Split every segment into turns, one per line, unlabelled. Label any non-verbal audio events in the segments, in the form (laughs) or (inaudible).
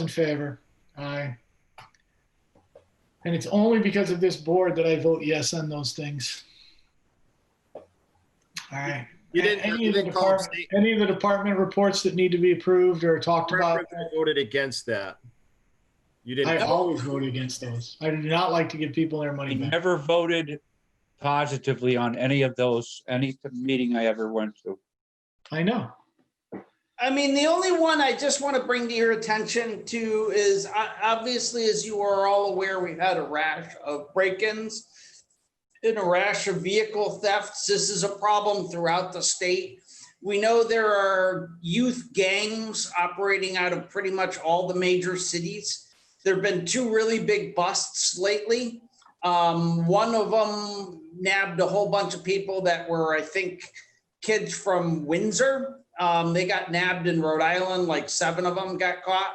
in favor? Aye. And it's only because of this board that I vote yes on those things. All right.
You didn't,
Any
you
of the
didn't call
department, any of the department reports that need to be approved or talked about,
voted against that. You
I
didn't,
always vote against those. I do not like to give people their money
I
back.
never voted positively on any of those, any meeting I ever went to.
I know.
I mean, the only one I just want to bring to your attention to is, uh, obviously, as you are all aware, we've had a rash of break-ins and a rash of vehicle thefts. This is a problem throughout the state. We know there are youth gangs operating out of pretty much all the major cities. There've been two really big busts lately. Um, one of them nabbed a whole bunch of people that were, I think, kids from Windsor. Um, they got nabbed in Rhode Island, like seven of them got caught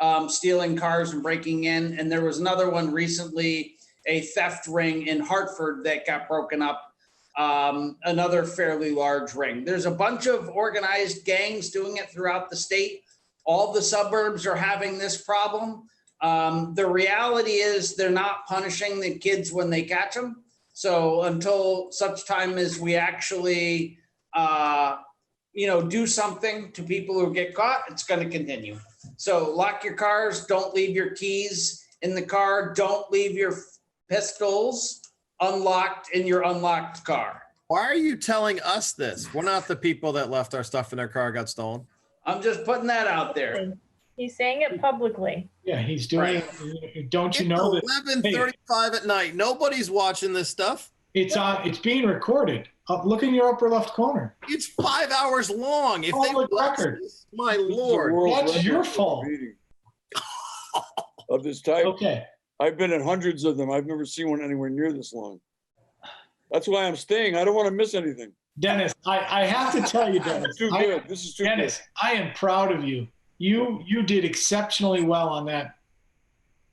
um, stealing cars and breaking in. And there was another one recently, a theft ring in Hartford that got broken up. Um, another fairly large ring. There's a bunch of organized gangs doing it throughout the state. All the suburbs are having this problem. Um, the reality is they're not punishing the kids when they catch them. So until such time as we actually uh, you know, do something to people who get caught, it's gonna continue. So lock your cars, don't leave your keys in the car, don't leave your pistols unlocked in your unlocked car.
why are you telling us this? We're not the people that left our stuff in their car got stolen.
I'm just putting that out there.
He's saying it publicly.
Yeah, he's doing, it. don't you know that
Eleven thirty-five at night. Nobody's watching this stuff.
it's on, it's being recorded. Up, look in your upper left corner.
It's five hours long. If they,
Public
watch
record.
this, my lord.
That's your fault.
Oh. Of this type,
Okay.
I've been in hundreds of them. I've never seen one anywhere near this long. That's why I'm staying. I don't want to miss anything.
Dennis, I, I have to tell you, Dennis.
Too
I-
good. This is too good.
Dennis, I am proud of you. You you did exceptionally well on that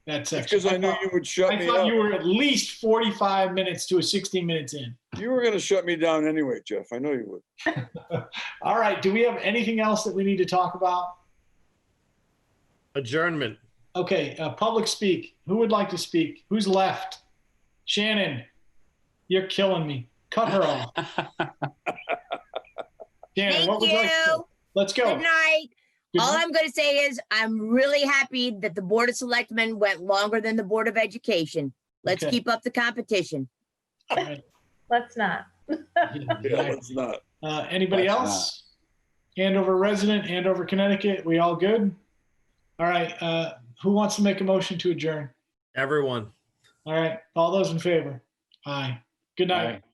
that section.
Because I knew
thought-
you would shut
I
me
thought you
up.
were at least 45 minutes to a 60 minutes in.
You were gonna shut me down anyway, Jeff. I know you would.
All right. Do we have anything else that we need to talk about?
Adjournment.
Okay. Uh, public speak. Who would like to speak? Who's left? Shannon, you're killing me. Cut her
(laughs)
off. Shannon, what
Thank
would you like to say?
you.
Let's go.
Good night.
Good
All
night.
I'm going to say is I'm really happy that the Board of Selectmen went longer than the Board of Education. Let's
Okay.
keep up the competition.
All right.
Let's not.
Yeah, (laughs) let's not.
Uh, anybody
That's
else? Andover resident, Andover, Connecticut. We all good? All right. Uh, who wants to make a motion to adjourn?
Everyone.
All right. All those in favor? Aye. Good night.
Aye.